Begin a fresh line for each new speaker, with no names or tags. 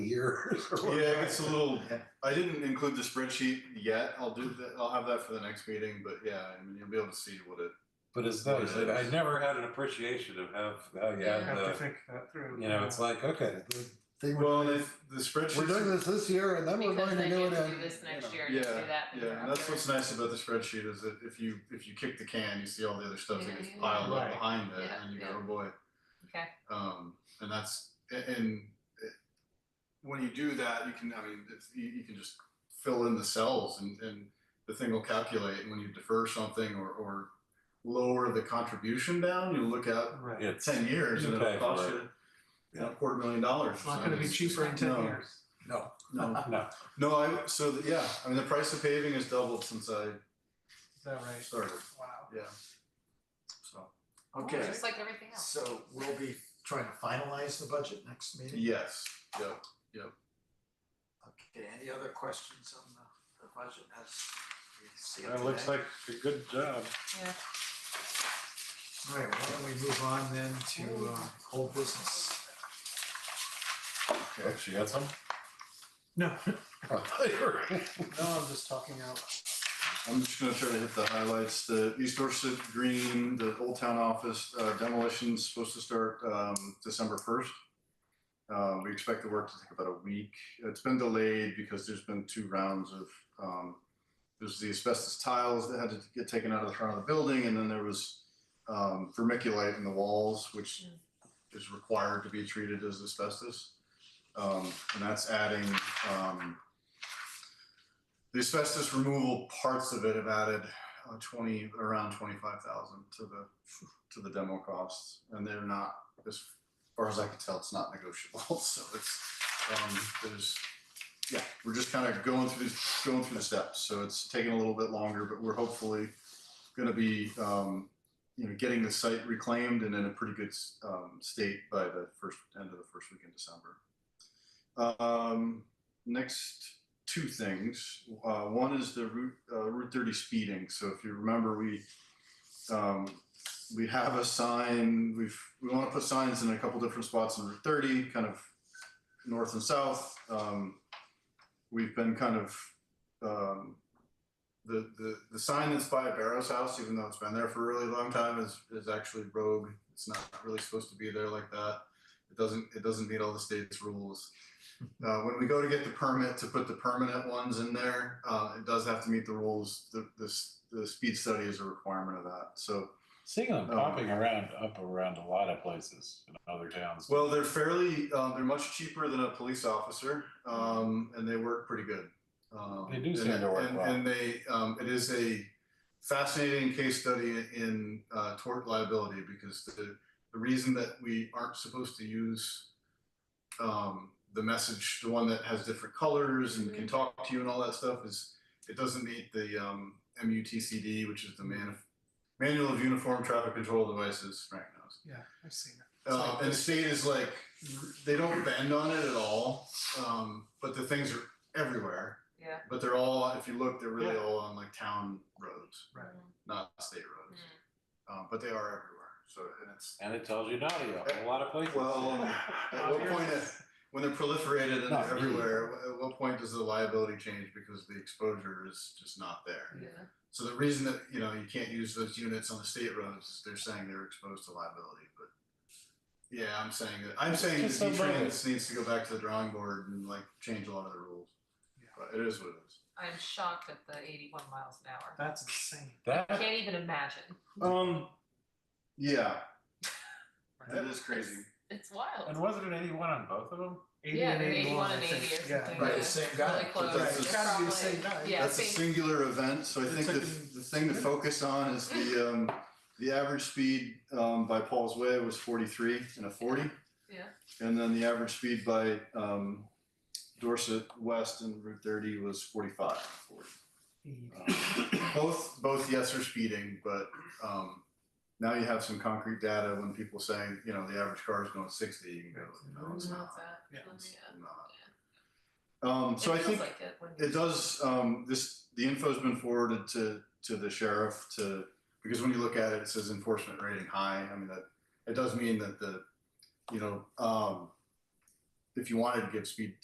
years or whatever.
Yeah, it's a little, I didn't include the spreadsheet yet. I'll do that, I'll have that for the next meeting, but yeah, I mean, you'll be able to see what it,
But it's nice, I, I never had an appreciation of how, how you
Yeah.
have
Have to
the,
think that through.
you know, it's like, okay, the thing with-
well, if the
we're doing
spreadsheet.
this this year and then we're
Because
going to
they
do
get
it
to
in.
do this next
you
year and
Yeah,
just do that. the year
yeah, and that's
after.
what's nice about the spreadsheet is that if you, if you kick the can, you see all the other stuff that gets
Yeah, yeah,
piled up
right.
behind it
Yeah,
and you go,
yeah.
oh boy.
Okay.
Um, and that's, a- and it- when you do that, you can, I mean, it's, you, you can just fill in the cells and, and the thing will calculate. And when you defer something or, or lower the contribution down, you look out
Right.
know.
for ten years and
Okay,
it'll cost
right.
you you know, a quarter million dollars.
It's not gonna be cheaper in
No.
ten years.
No,
No,
no,
no, I, so, the- yeah, I mean, the price of paving has doubled since I
Is that right?
started,
Wow.
yeah. So,
Oh,
Okay,
Just like everything else.
so we'll be trying to finalize the budget next meeting?
yes, yeah,
Okay, any other questions on the, the budget as we see it today?
That looks like a good job.
Yeah.
All right, why don't we move on then to, uh, old business?
okay.
Oh, she had some?
No,
I thought you were-
no, I'm just talking out.
I'm just gonna try to hit the highlights, the East Dorset Green, the Old Town Office uh, demolition's supposed to start um, December first. Uh, we expect the work to take about a week, it's been delayed because there's been two rounds of, um, there's the asbestos tiles that had to get taken out of the front of the building, and then there was um, vermiculite in the walls, which is required to be treated as asbestos. Um, and that's adding, um, the asbestos removal parts of it have added uh, twenty, around twenty-five thousand to the, to the demo costs, and they're not, as far as I can tell, it's not negotiable, so it's, um, there's, yeah, we're just kind of going through, these- going through the steps, so it's taking a little bit longer, but we're hopefully gonna be, um, you know, getting the site reclaimed and in a pretty good, s- um, state by the first, end of the first week in December. Um, next two things. Uh, one is the Route, uh, Route thirty speeding. So if you remember, we, um, we have a sign, we've, we want to put signs in a couple different spots in Route thirty, kind of north and south. Um, we've been kind of, um, the, the, the sign that's by Barrow's house, even though it's been there for a really long time, is, is actually rogue. It's not really supposed to be there like that. It doesn't, it doesn't meet all the state's rules. Uh, when we go to get the permit to put the permanent ones in there, uh, it does have to meet the rules. The, the, s- the speed study is a requirement of that. So,
Seeing them
Oh.
popping around, up around a lot of places in other towns.
well, they're fairly, um, they're much cheaper than a police officer, um, and they work pretty good. Um,
They do
and-
seem to work
and-
well.
And they, um, it is a fascinating case study in, uh, tort liability because the, the reason that we aren't supposed to use um, the message, the one that has different colors and can talk to you and all that stuff is, it doesn't meet the um, MUTCD, which is the man, manual of uniform traffic control devices, Frank knows.
Yeah, I've seen it.
Uh, and the state is like, they don't bend on it at all, um, but the things are everywhere.
Yeah.
But they're all, if you look, they're really all on like town roads,
Right.
not state roads. Um, but they are everywhere. So, and it's,
And it tells you Nadia, a lot of places.
Well, at what point, uh, when they're proliferated and
No,
they're
really.
everywhere, at what point does the liability change because the exposure is just not there?
Yeah.
So the reason that, you know, you can't use those units on the state roads is they're saying they're exposed to liability, but. Yeah, I'm saying that, I'm saying that
Just some
D-Trans needs to go back to the drawing board and like change a lot of the rules.
Yeah.
But it is what it is.
I'm shocked at the eighty-one miles an hour.
That's insane.
I
That,
can't even imagine.
um,
Yeah,
Right?
that is crazy.
It's wild.
and wasn't it eighty-one on both of them?
Eighty
Yeah,
and
they're 81
eighty-one, I
and 80
think.
or
Yeah.
something.
Right,
Yeah.
the same guy.
Really close.
Right, It's gotta be the same guy.
Yeah,
That's a
same.
singular event, so I
It
think
took
the,
him-
the thing to focus on is the, um, the average speed, um, by Paul's Way was forty-three and a forty.
Yeah.
And then the average speed by, um, Dorset West and Route thirty was forty-five.
Eighty.
Um, Both, both yes are speeding, but, um, now you have some concrete data when people say, you know, the average car is going sixty, you can go, no, it's
Mm,
not.
that.
Yeah.
It's
Yeah.
not. Um, so
It
I
feels
think.
like it when you-
It does, um, this, the info's been forwarded to, to the sheriff to, because when you look at it, it says enforcement rating high, I mean, that, it does mean that the, you know, um, if you wanted to give speed